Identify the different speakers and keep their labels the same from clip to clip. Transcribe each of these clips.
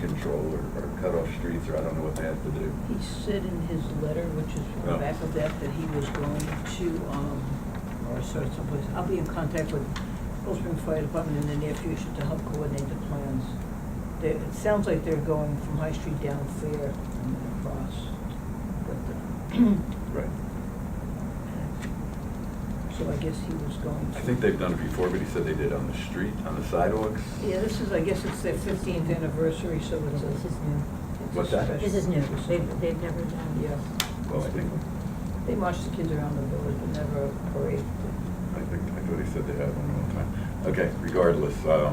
Speaker 1: control or, or cut off streets, or I don't know what they have to do.
Speaker 2: He said in his letter, which is on
Speaker 1: Yeah.
Speaker 2: the back of that, that he was going to, um, or sort of someplace, I'll be in contact with Cold Spring Fire Department in the near future to help coordinate the plans. They, it sounds like they're going from High Street down Fair and then across, but,
Speaker 1: Right.
Speaker 2: the- so I guess he was going to.
Speaker 1: I think they've done it before, but he said they did on the street, on the sidewalks.
Speaker 2: Yeah, this is, I guess it's their fifteenth anniversary, so it's a.
Speaker 3: This is new.
Speaker 2: it's a
Speaker 1: What's that?
Speaker 2: special-
Speaker 3: This is new. They've, they've never done.
Speaker 2: Yeah,
Speaker 1: Well, I think,
Speaker 2: they march the kids around the village, but never a
Speaker 1: I
Speaker 2: parade.
Speaker 1: think, I thought he said they had one one time. Okay, regardless, um,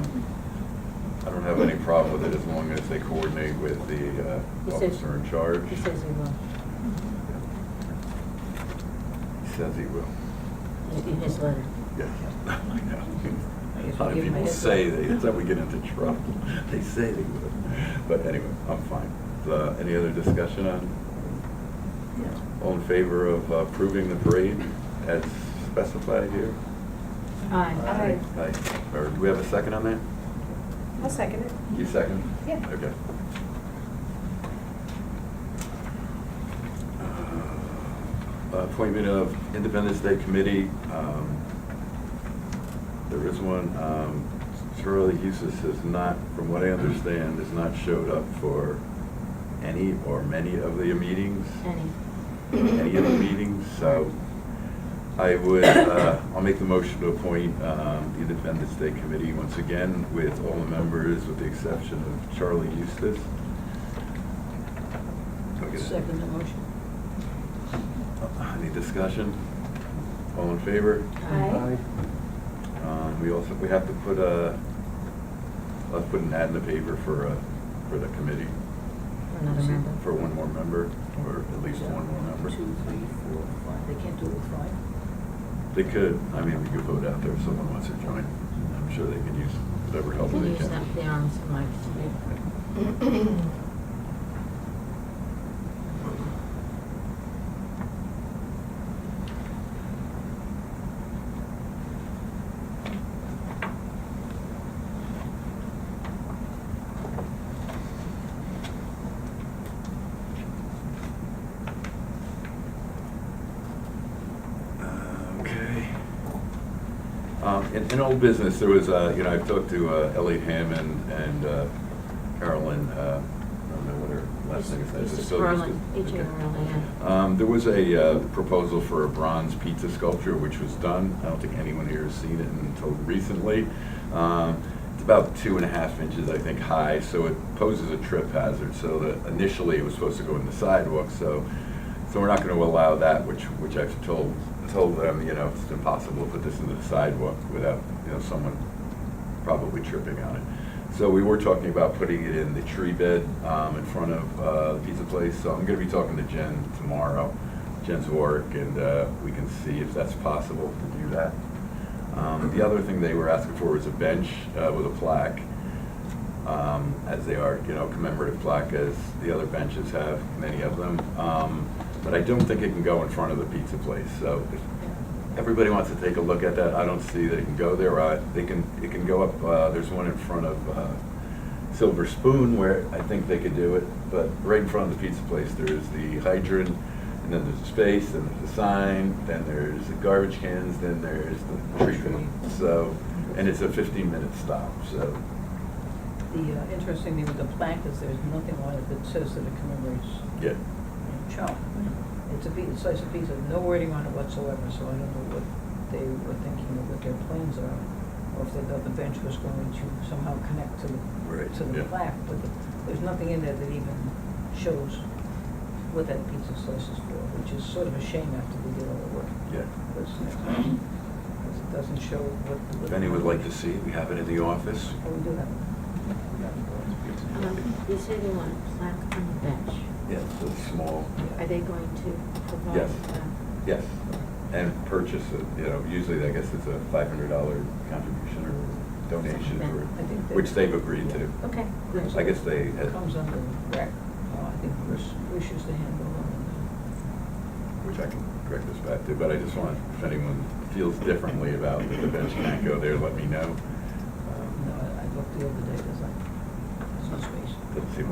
Speaker 1: I don't have any problem with it as long as they coordinate with the,
Speaker 3: He
Speaker 1: uh,
Speaker 3: says-
Speaker 1: officer in charge.
Speaker 3: He says he will.
Speaker 1: He says he will.
Speaker 3: In his letter.
Speaker 1: Yes, I know.
Speaker 2: guess
Speaker 1: A lot
Speaker 2: we
Speaker 1: of
Speaker 2: give 'em a
Speaker 1: people
Speaker 2: heads
Speaker 1: say,
Speaker 2: up.
Speaker 1: they- that's how we get into trouble. They say they would. But anyway, I'm fine. Uh, Any other discussion on,
Speaker 2: Yeah.
Speaker 1: all in favor of approving the parade as specified here?
Speaker 3: Aye.
Speaker 1: Aye. Or do we have a second on that?
Speaker 4: I'll second it.
Speaker 1: You second?
Speaker 4: Yeah.
Speaker 1: Okay. Uh, Appointment of Independence Day Committee. um, There is one, um, Charlie Hughes has not, from what I understand, has not showed up for any or many of the meetings,
Speaker 3: Any.
Speaker 1: any of the meetings, so I would, uh, I'll make the motion to appoint um, the Independence Day Committee once again with all the members, with the exception of Charlie Eustace. Do I get a- Uh,
Speaker 2: Second the motion.
Speaker 1: Any discussion? All in favor?
Speaker 3: Aye.
Speaker 1: Um, We also, we have to put a, let's put an ad in the paper for, uh, for the committee.
Speaker 3: Another member.
Speaker 1: For one more member, or at least one more member.
Speaker 2: Two, three, four, five, they can't do it five.
Speaker 1: They could, I mean, we could vote out there if someone wants to join. I'm sure they could use whatever help
Speaker 3: Can
Speaker 1: they
Speaker 3: you use
Speaker 1: can.
Speaker 3: that- the arms of Mike's.
Speaker 1: Uh, Okay. Um, In, in old business, there was, uh, you know, I've talked to uh, Elliot Hammond and uh, Carolyn, uh, I don't know what her last name is. I
Speaker 3: It's
Speaker 1: just
Speaker 3: just
Speaker 1: saw this-
Speaker 3: Berlin, H A R L I N.
Speaker 1: Um, There was a uh, proposal for a bronze pizza sculpture, which was done. I don't think anyone here has seen it until recently. Um, It's about two and a half inches, I think, high, so it poses a trip hazard. So the- initially, it was supposed to go in the sidewalk, so, so we're not going to allow that, which, which I've told, told them, you know, it's impossible to put this into the sidewalk without, you know, someone probably tripping on it. So we were talking about putting it in the tree bed um, in front of uh, the pizza place. So I'm going to be talking to Jen tomorrow, Jen's work, and uh, we can see if that's possible to do that. Um, The other thing they were asking for was a bench uh, with a plaque, um, as they are, you know, commemorative plaque, as the other benches have, many of them. Um, But I don't think it can go in front of the pizza place, so if Everybody wants to take a look at that. I don't see that it can go there. Uh, They can, it can go up, uh, there's one in front of uh, Silver Spoon where I think they could do it. But right in front of the pizza place, there's the hydrant, and then there's a space, then there's a sign, then there's the garbage cans, then there's the treatment. So, and it's a 15-minute stop, so,
Speaker 2: The uh, interesting thing with the plaque is there's nothing on it that says that it commemorates
Speaker 1: yeah.
Speaker 2: Chum. It's a piece, it's slice of pizza, no wording on it whatsoever, so I don't know what they were thinking of what their plans are. Or if they thought the bench was going to somehow connect to
Speaker 1: Right,
Speaker 2: the, to the
Speaker 1: yeah.
Speaker 2: plaque, but the- there's nothing in there that even shows what that pizza slice is for, which is sort of a shame after we did all the work.
Speaker 1: Yeah.
Speaker 2: Because it doesn't show what. what-
Speaker 1: If any would like to see, it, we have it in the office.
Speaker 2: Oh, we do have it.
Speaker 3: Um, You say they want a plaque on the bench.
Speaker 1: Yeah, it's small.
Speaker 3: Are they going to provide?
Speaker 1: Yes.
Speaker 3: uh,
Speaker 1: Yes, and purchase it, you know, usually I guess it's a five hundred dollar contribution or donation for,
Speaker 2: I think they-
Speaker 1: which they've agreed to.
Speaker 3: Okay, good.
Speaker 1: I guess they had,
Speaker 2: Comes under rec, uh, I think Chris wishes to handle it.
Speaker 1: which I can correct this back to, but I just want, if anyone feels differently about that the bench can't go there, let me know.
Speaker 2: No,
Speaker 1: Um,
Speaker 2: I I looked the other day, there's like, there's no space.
Speaker 1: Doesn't seem like